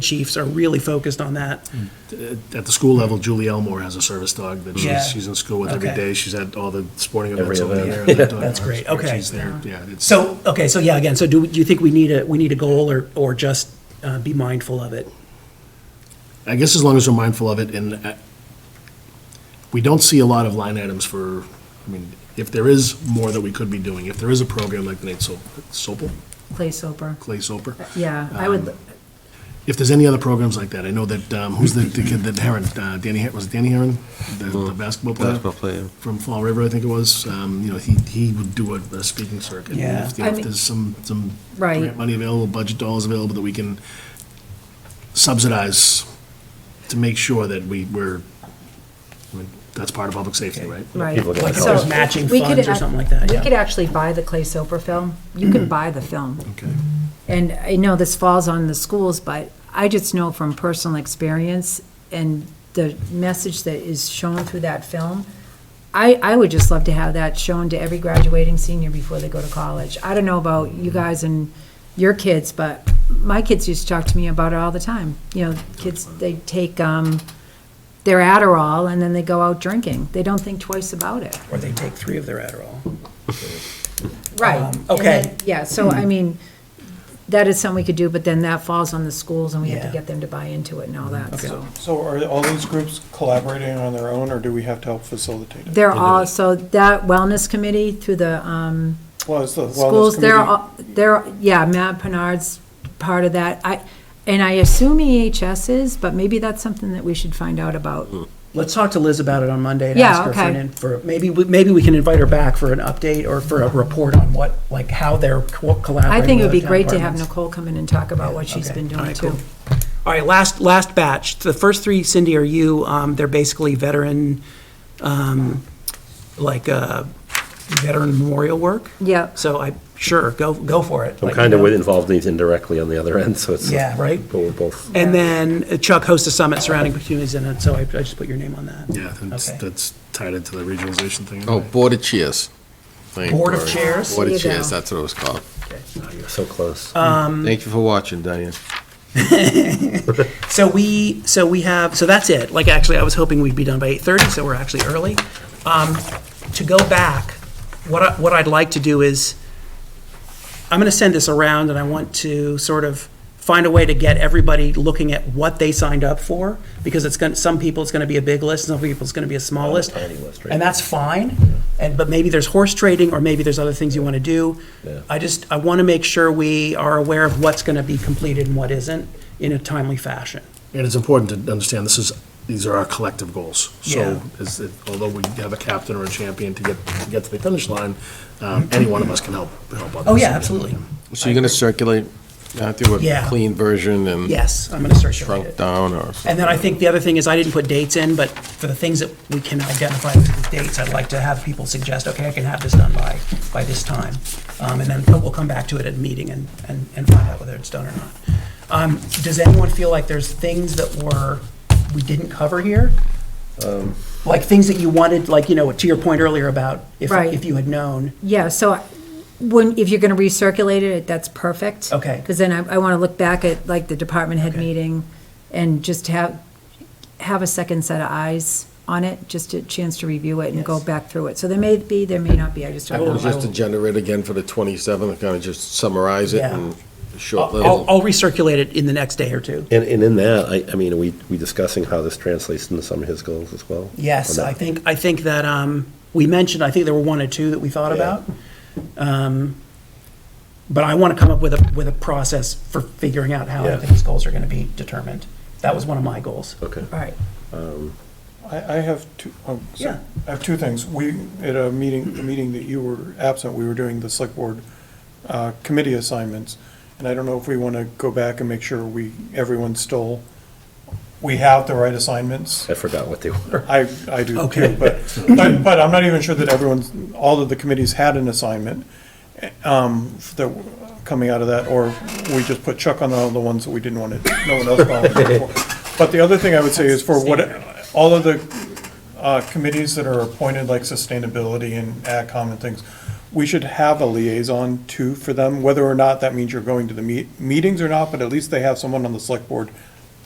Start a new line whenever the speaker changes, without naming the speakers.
chiefs are really focused on that.
At the school level, Julie Elmore has a service dog that
Yeah.
she's, she's in school with every
Okay.
day. She's at all the sporting events
Every
over the
event.
year. and that dog
That's
loves
great.
her.
Okay.
She's there, yeah. it's-
So, okay, so yeah, again, so do, do you think we need a, we need a goal or, or just uh, be mindful of it?
I guess as long as we're mindful of it, and uh, we don't see a lot of line items for, I mean, if there is more that we could be doing, if there is a program like the Nate Sop- Sopel,
Clay Soper,
Clay Soper, Um,
yeah, I would,
if there's any other programs like that, I know that, um, who's the, the kid that Heron, uh, Danny, Her- was it Danny Heron? The- The basketball player?
Mm-hmm. Basketball player.
From Fall River, I think it was, um, you know, he, he would do a, a speaking circuit. And
Yeah.
if- you know,
I
If
mean-
there's some, some
Right.
grant money available, budget dollars available that we can subsidize to make sure that we, we're, I mean, that's part of public safety, right?
right.
people get Like
if there's
So,
matching
we could
funds or
ac-
something like that, yeah. Mm-hmm.
We could actually buy the Clay Soper film. You can buy the film.
Okay.
And I know this falls on the schools, but I just know from personal experience and the message that is shown through that film, I, I would just love to have that shown to every graduating senior before they go to college. I don't know about
Mm-hmm.
you guys and your kids, but my kids used to talk to me about it all the time. You know, kids, they take, um, their Adderall and then they go out drinking. They don't think twice about it.
Or they take three of their Adderall.
Right.
Um,
And
okay. Hmm.
then- Yeah, so I mean, that is something we could do, but then that falls on the schools and we have to
Yeah.
get them to buy into it and all that, so.
So are all these groups collaborating on their own, or do we have to help facilitate it?
They're all, so that wellness committee through the, um,
Well, it's the wellness
schools, they're,
committee-
all they're, yeah, Matt Pinard's part of that. I, and I assume EHS is, but maybe that's something that we should find out about.
Hmm. Let's talk to Liz about it on Monday and
Yeah,
ask her for an,
okay.
in- for, maybe, we- maybe we can invite her back for an update or for a report on what, like, how they're co- collaborating.
I think it would
with
be
other town
great to have
departments.
Nicole come in and talk about what she's
Okay.
been
All
doing
right,
too.
cool. All right, last, last batch. The first three, Cindy, are you, um, they're basically veteran, um, like, uh, veteran memorial work?
Yep.
So I, sure, go, go for it.
I'm
Like,
kind
you know.
of involved in these indirectly on the other end, so it's.
Yeah, right?
But we're both,
And then Chuck hosts a summit surrounding communities in it, so I, I just put your name on that.
Yeah, that's,
Okay.
that's tied into the regionalization thing.
Oh, Board of Chairs. Thank you,
Board of
Gloria.
Chairs?
Board
There
of
you go.
Chairs, that's what it was called.
you're so close.
Uh,
Thank you for watching, Diane.
So we, so we have, so that's it. Like, actually, I was hoping we'd be done by eight-thirty, so we're actually early. Um, to go back, what I, what I'd like to do is, I'm gonna send this around, and I want to sort of find a way to get everybody looking at what they signed up for, because it's gonna, some people, it's gonna be a big list, some people, it's gonna be a small list.
Tiny list, right?
And that's fine, and, but maybe there's horse trading, or maybe there's other things you wanna do. I just, I wanna make sure we are aware of what's gonna be completed and what isn't, in a timely fashion.
And it's important to understand, this is, these are our collective goals.
Yeah.
So, is it- although we have a captain or a champion to get, to get to the finish line, um, any one of us can help, help others.
Oh, yeah, absolutely.
So you're going to circulate, Matthew,
Yeah.
a clean version and
Yes, I'm going to start showing
shrunk
it.
down or?
And then I think the other thing is I didn't put dates in, but for the things that we can identify with dates, I'd like to have people suggest, okay, I can have this done by, by this time. Um, and then we'll come back to it at a meeting and, and, and find out whether it's done or not. Um, does anyone feel like there's things that were, we didn't cover here? Like things that you wanted, like, you know, to your point earlier about if,
Right.
if you had known.
Yeah, so I- when, if you're going to recirculate it, that's perfect.
Okay.
Because then I, I want to look back at like the department head meeting and just have, have a second set of eyes on it, just a chance to review it and go
Yes.
back through it. So there may be, there may not be, I just don't know.
Just to generate again for the 27th, kind of just summarize it
Yeah. Oh,
and short
I'll,
little.
I'll recirculate it in the next day or two.
And, and in that, I, I mean, are we, we discussing how this translates into some of his goals as well?
Yes,
Or
I
not?
think, I think that, um, we mentioned, I think there were one or two that we thought about. Um, But I want to come up with a, with a process for figuring out how I
Yeah.
think these goals are going to be determined. That was one of my goals.
Okay.
All right,
I, I have two, um, so-
Yeah.
I have two things. We, at a meeting, the meeting that you were absent, we were doing the select board, uh, committee assignments. And I don't know if we want to go back and make sure we, everyone's still, we have the right assignments.
I forgot what they were.
I, I do
Okay.
too, but, but, but I'm not even sure that everyone's, all of the committees had an assignment, um, that, coming out of that, or we just put Chuck on all the ones that we didn't want to, no one else volunteered for. But the other thing I would say is for what, all of the, uh, committees that are appointed, like sustainability and AdCom and things, we should have a liaison too for them, whether or not that means you're going to the meet, meetings or not, but at least they have someone on the select board